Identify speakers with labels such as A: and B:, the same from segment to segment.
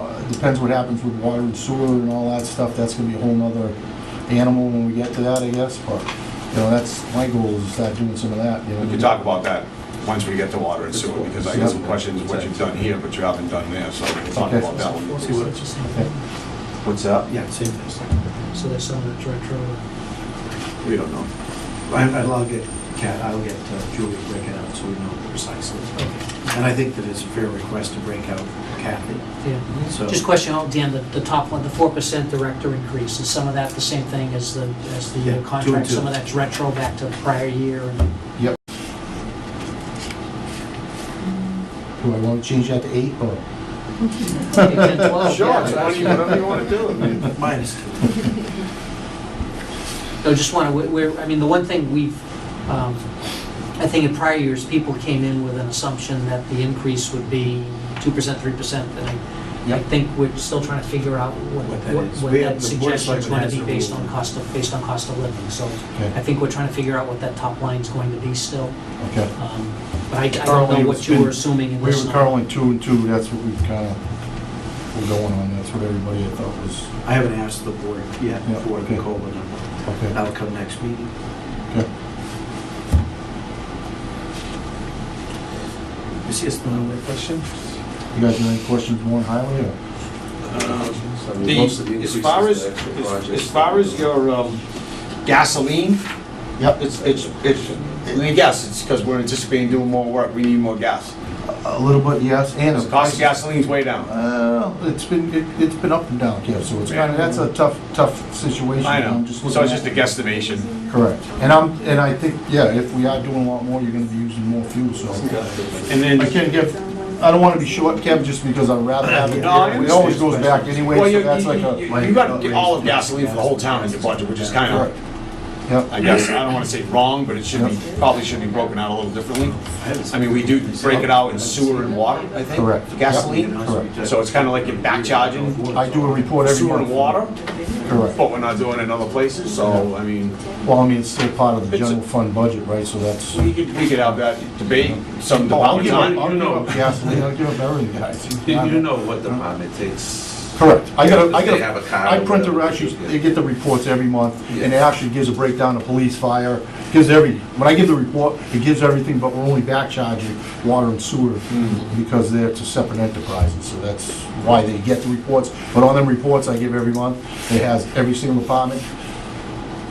A: Uh, depends what happens with water and sewer and all that stuff, that's gonna be a whole nother animal when we get to that, I guess, but, you know, that's, my goal is to start doing some of that, you know.
B: We can talk about that once we get to water and sewer, because I got some questions of what you've done here, but you haven't done there, so we'll talk about that one.
C: See what? It's the same thing.
B: What's up?
D: Yeah, same thing.
C: So that's some of the retro.
B: We don't know.
D: I- I'll get, Kat, I'll get uh, Julie to break it out so we know precisely. And I think that it's a fair request to break out Kathy.
C: Yeah.
D: So-
C: Just question, oh, Dan, the, the top one, the four percent director increase, is some of that the same thing as the, as
D: Yeah, two
C: the uh,
D: and
C: contract?
D: two.
C: Some of that's retro back to the prior year and
A: Yep. Do I wanna change that to eight, or?
C: ten, twelve?
B: Sure,
C: yeah.
B: it's whatever you- whatever you want to do. I mean,
D: Minus two.
C: No, just want to, we're, I mean, the one thing we've, um, I think in prior years, people came in with an assumption that the increase would be 2%, 3%, and I, I
A: Yep.
C: think we're still trying to figure out what,
D: What that
C: what
D: is.
C: what
D: We have-
C: that
D: the Board of
C: suggestion is
D: Selectmen
C: going
D: has
C: to be
D: a
C: based
D: rule.
C: on cost of, based on cost of living, so I
A: Okay,
C: think we're trying to figure out what that top line's going to be still.
A: okay.
C: Um, But I I don't
A: Currently,
C: know what
A: it's
C: you
A: been-
C: were assuming in
A: We
C: this
A: were
C: number.
A: currently two and two, that's what we've kinda, we're going on, that's what everybody I thought was,
D: I haven't asked the board yet
A: Yeah,
D: for the
A: okay.
D: COLA number.
C: Oh.
A: okay,
D: That'll come next meeting.
A: okay.
D: Is this the only question?
A: You guys have any questions more on highway, or?
E: I mean,
B: Um, The,
E: most of the
B: as
E: increases
B: far as,
E: are actual
B: as-
E: projects
B: as far
E: that
B: as your um, gasoline,
A: Yep,
B: it's, it's, it's, I guess, it's because we're anticipating doing more work, we need more gas.
A: a little bit, yes, and.
B: The cost of gasoline's way down.
A: Uh, it's been, it- it's been up and down, yeah, so it's kind of, that's a tough, tough situation.
B: I
A: I'm
B: know,
A: just
B: so it's
A: looking
B: just a
A: at-
B: guesstimation.
A: Correct, and I'm, and I think, yeah, if we are doing a lot more, you're gonna be using more fuel, so.
B: And then,
A: I can't give, I don't want to be short, Kev, just because I'd rather have it.
B: No, I
A: It always goes back anyway,
B: well,
A: so
B: you,
A: that's like
B: you-
A: a,
B: you, you got all of gasoline for the whole town in your budget, which is kind
A: correct.
B: of,
A: Yep,
B: I guess, I don't want to say wrong, but it should be, probably should be broken out a little differently. I mean, we do break it out in sewer and water, I think.
A: Correct.
B: for Gasoline.
A: Correct.
B: So it's kind of like you're back charging
A: I do a report every
B: sewer
A: month.
B: and water,
A: Correct.
B: but we're not doing it in other places, so, I mean,
A: Well, I mean, it's still part of the
B: It's a-
A: general fund budget, right, so that's.
B: we could, we could have that debate some
A: Oh, I'll
B: department
A: give up, I'll
B: time.
A: give up gasoline, I'll give up everything, guys.
E: You you know what department takes.
A: Correct. I got, a- I
E: If they have a
A: got,
E: car or
A: I print the,
E: whatever.
A: actually, they get the reports every month, and it actually gives a breakdown of police, fire, gives every, when I give the report, it gives everything, but we're only back charging water and sewer,
E: Mm.
A: because they're two separate enterprises, so that's why they get the reports. But on them reports I give every month, it has every single department,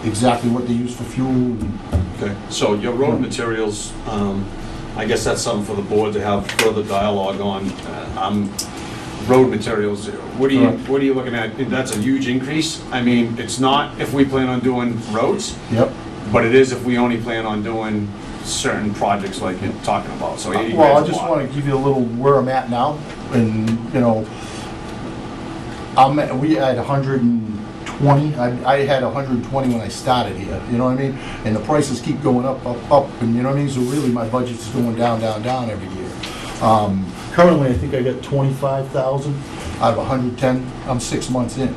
A: exactly what they use for fuel, and
B: Okay, so your road materials, um, I guess that's something for the board to have further dialogue on. Uh, Um, road materials, what are you,
A: Correct.
B: what are you looking at? That's a huge increase. I mean, it's not if we plan on doing roads,
A: yep.
B: but it is if we only plan on doing certain projects like you're talking about, so eighty
A: Uh, Well, I
B: grand's a
A: just
B: lot.
A: want to give you a little where I'm at now, and, you know, I'm, at- we had hundred and twenty, I, I had hundred and twenty when I started here, you know what I mean? And the prices keep going up, up, up, and you know what I mean, so really my budget's going down, down, down every year. Um, currently, I think I got twenty-five thousand out of hundred and ten, I'm six months in.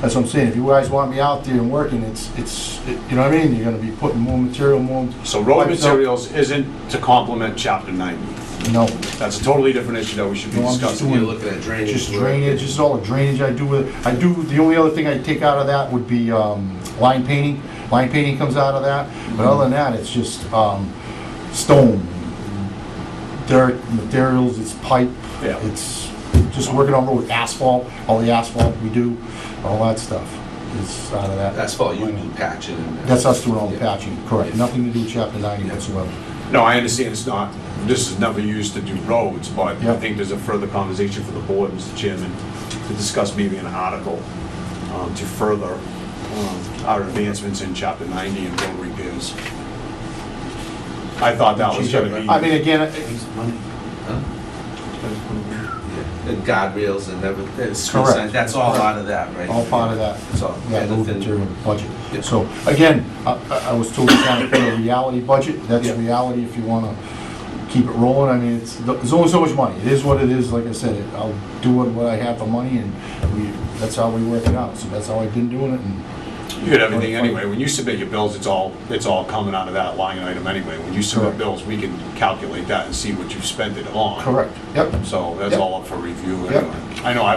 A: That's what I'm saying, if you guys want me out there and working, it's, it's, it- you know what I mean, you're gonna be putting more material, more.
B: So road
A: pipes up.
B: materials isn't to complement chapter ninety.
A: No.
B: That's a totally different issue that we should be
A: No, I'm just
B: discussing.
A: doing
E: You're looking at drainage.
A: Just
E: work.
A: drainage, just all the drainage I do with it. I do, the only other thing I take out of that would be um, line painting. Line painting comes out of that, but other than that, it's just um, stone, dirt, materials, it's pipe,
B: Yeah.
A: it's just working on road with asphalt, all the asphalt we do, all that stuff is out of that.
E: Asphalt, you do patching. and-
A: That's us doing all the
E: Yeah.
A: patching, correct. Nothing to do with chapter 90
E: Yeah.
A: whatsoever.
B: No, I understand it's not, this is never used to do roads, but I
A: Yep.
B: think there's a further conversation for the board, Mr. Chairman, to discuss maybe an article um, to further um, our advancements in chapter 90 and road repairs. I thought that was gonna be.
A: I mean, again,
D: It's money.
E: Huh?
D: That's what it is.
E: Yeah. And guardrails and everything. It's-
A: Correct.
E: That's all part of that, right?
A: all part of that.
E: It's all.
A: that moved
E: everything.
A: into the budget.
E: Yeah.
A: So, again, I, I- I was told to kind of put a reality budget, that's
B: Yeah.
A: reality if you wanna keep it rolling, I mean, it's, there's only so much money, it is what it is, like I said, it- I'll do what, what I have for money, and we, that's how we work it out, so that's how I've been doing it, and,
B: You get everything anyway. When you submit your bills, it's all, it's all coming out of that line item anyway. When you submit
A: Correct.
B: bills, we can calculate that and see what you've spent it on.
A: correct, yep.
B: So that's
A: Yep.
B: all up for review
A: Yep.
B: anyway. I know I've